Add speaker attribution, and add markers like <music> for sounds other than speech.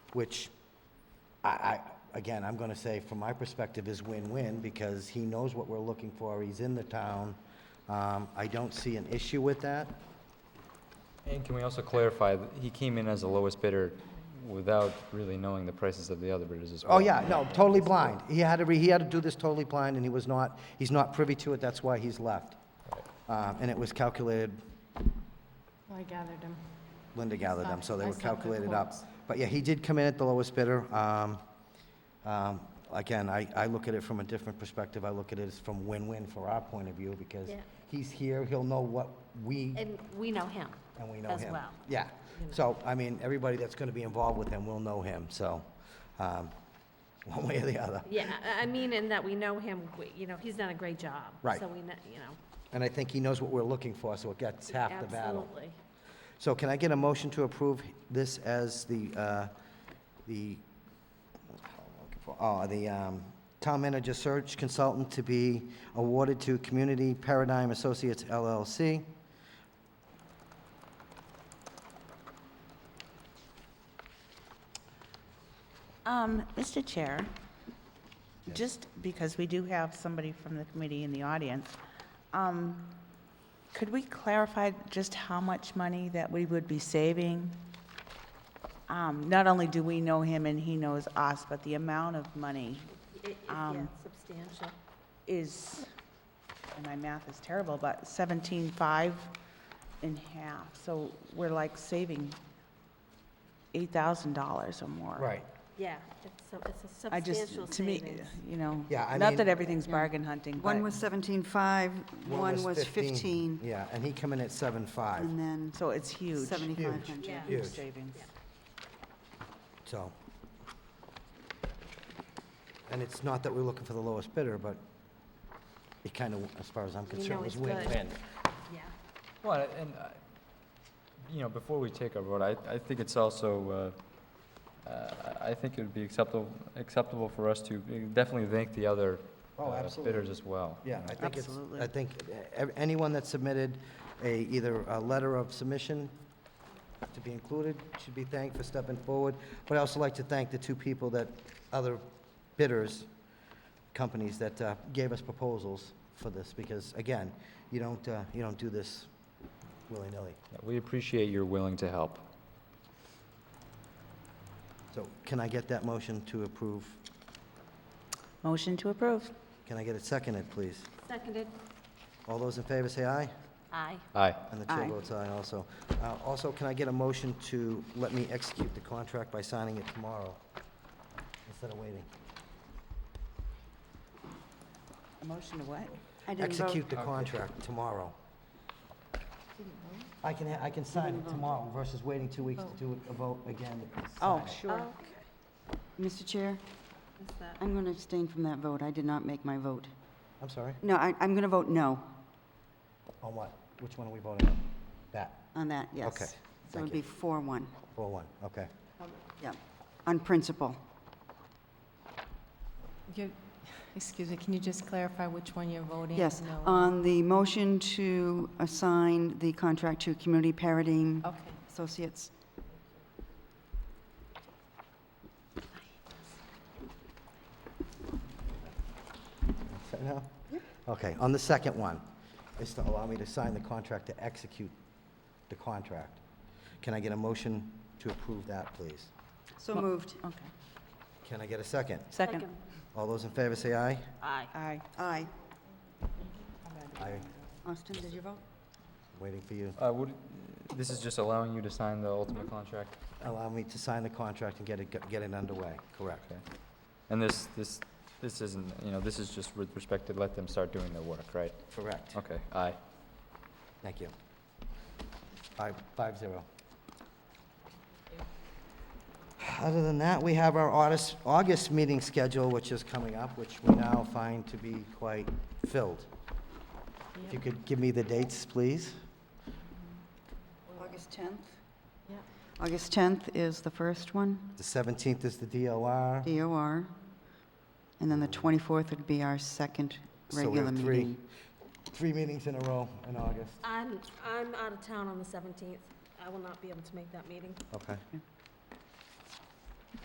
Speaker 1: which I, I, again, I'm gonna say from my perspective is win-win because he knows what we're looking for, he's in the town. Um, I don't see an issue with that.
Speaker 2: And can we also clarify, that he came in as the lowest bidder without really knowing the prices of the other bidders as well?
Speaker 1: Oh, yeah, no, totally blind. He had to, re- he had to do this totally blind, and he was not, he's not privy to it, that's why he's left. Um, And it was calculated,
Speaker 3: I gathered him.
Speaker 1: Linda gathered them, so they
Speaker 3: I
Speaker 1: were
Speaker 3: saw the
Speaker 1: calculated up.
Speaker 3: quotes.
Speaker 1: But yeah, he did come in at the lowest bidder. Um, um, Again, I, I look at it from a different perspective. I look at it as from win-win for our point of view, because
Speaker 4: Yeah.
Speaker 1: he's here, he'll know what we,
Speaker 4: And we know him.
Speaker 1: and we know him.
Speaker 4: as well. Mm-hmm.
Speaker 1: Yeah, so, I mean, everybody that's gonna be involved with him will know him, so, um, <laughs> one way or the other.
Speaker 4: Yeah, I I mean, in that we know him, we- you know, he's done a great job.
Speaker 1: Right.
Speaker 4: So we, kn- you know.
Speaker 1: And I think he knows what we're looking for, so it gets half the battle.
Speaker 4: Absolutely.
Speaker 1: So can I get a motion to approve this as the, uh, the, what the hell am I looking for? oh, the um, town manager search consultant to be awarded to Community Paradigm Associates LLC?
Speaker 5: Um, Mr. Chair, just because we do have somebody from the committee in the audience, um, could we clarify just how much money that we would be saving? Um, Not only do we know him and he knows us, but the amount of money
Speaker 4: I- i- Yeah,
Speaker 5: Um,
Speaker 4: substantial.
Speaker 5: is, and my math is terrible, but 17.5 in half. So we're like saving $8,000 or more.
Speaker 4: Yeah, it's, so- it's a
Speaker 5: I
Speaker 4: substantial
Speaker 5: just,
Speaker 4: savings.
Speaker 5: to me, you know,
Speaker 1: Yeah, I
Speaker 5: not
Speaker 1: mean-
Speaker 5: that everything's bargain hunting, but.
Speaker 6: One was 17.5, one was 15,
Speaker 1: Yeah, and he come in at seven five.
Speaker 6: and then
Speaker 5: So it's huge.
Speaker 6: 7,500.
Speaker 4: Yeah.
Speaker 1: Huge.
Speaker 5: Huge savings.
Speaker 1: so. And it's not that we're looking for the lowest bidder, but it kind of, as far as I'm concerned,
Speaker 4: know
Speaker 1: was
Speaker 4: it's good.
Speaker 1: win-win.
Speaker 4: Yeah.
Speaker 2: Well, and, I- you know, before we take our vote, I, I think it's also, uh, uh, I I think it would be acceptable, acceptable for us to uh, definitely thank the other
Speaker 1: Oh,
Speaker 2: uh,
Speaker 1: absolutely.
Speaker 2: bidders as well. you
Speaker 1: Yeah,
Speaker 2: know.
Speaker 1: I think it's,
Speaker 5: Absolutely.
Speaker 1: I think uh, ev- anyone that submitted a, either a letter of submission to be included should be thanked for stepping forward. But I also like to thank the two people that, other bidders, companies that uh, gave us proposals for this, because again, you don't, uh, you don't do this willy-nilly.
Speaker 2: Yeah, We appreciate your willing to help.
Speaker 1: So can I get that motion to approve?
Speaker 5: Motion to approve.
Speaker 1: Can I get it seconded, please?
Speaker 4: Seconded.
Speaker 1: All those in favor say aye?
Speaker 4: Aye.
Speaker 2: Aye.
Speaker 1: And the chair
Speaker 5: Aye.
Speaker 1: votes aye also. Uh, Also, can I get a motion to let me execute the contract by signing it tomorrow instead of waiting?
Speaker 5: A motion to what?
Speaker 6: I didn't vote.
Speaker 1: Execute the contract tomorrow. I can, ha- I can sign it tomorrow versus waiting two weeks to
Speaker 6: Oh.
Speaker 1: do it- a vote again. to
Speaker 5: Oh,
Speaker 1: sign it.
Speaker 5: sure.
Speaker 6: Mr. Chair,
Speaker 4: Is that-
Speaker 6: I'm going to abstain from that vote. I did not make my vote.
Speaker 1: I'm sorry,
Speaker 6: No, I, I'm going to vote no
Speaker 1: on what? Which one are we voting on? That,
Speaker 6: on that, yes.
Speaker 1: Okay,
Speaker 6: So it
Speaker 1: thank
Speaker 6: would
Speaker 1: you.
Speaker 6: be 4-1,
Speaker 1: four one, okay. <laughs>
Speaker 6: yeah, on principle.
Speaker 3: You- Excuse me, can you just clarify which one you're voting?
Speaker 6: Yes,
Speaker 3: no on?
Speaker 6: on the motion to assign the contract to Community Paradigm
Speaker 3: Okay,
Speaker 6: Associates.
Speaker 1: So now? Okay, on the second one, is to allow me to sign the contract to execute the contract. Can I get a motion to approve that, please?
Speaker 6: So moved.
Speaker 5: Okay.
Speaker 1: Can I get a second?
Speaker 5: Oh. Second.
Speaker 1: All those in favor say aye.
Speaker 4: Aye.
Speaker 5: Aye.
Speaker 6: Aye.
Speaker 1: Aye.
Speaker 6: Austin, did you vote?
Speaker 1: Waiting for you.
Speaker 2: Uh, would, this is just allowing you to sign the ultimate contract?
Speaker 1: Allow me to sign the contract and get it, get it underway. Correct.
Speaker 2: Okay. And this, this, this isn't, you know, this is just with respect to let them start doing their work, right?
Speaker 1: Correct.
Speaker 2: Okay, aye.
Speaker 1: Thank you. Five, five zero. Other than that, we have our August, August meeting schedule, which is coming up, which we now find to be quite filled. If you could give me the dates, please.
Speaker 6: August 10th?
Speaker 3: yeah.
Speaker 6: August 10th is the first one,
Speaker 1: The 17th is the DOR.
Speaker 6: DOR, and then the 24th would be our second
Speaker 1: So we have
Speaker 6: regular
Speaker 1: three-
Speaker 6: meeting.
Speaker 1: Three meetings in a row in August.
Speaker 4: I'm, I'm out of town on the 17th. I will not be able to make that meeting.
Speaker 1: Okay.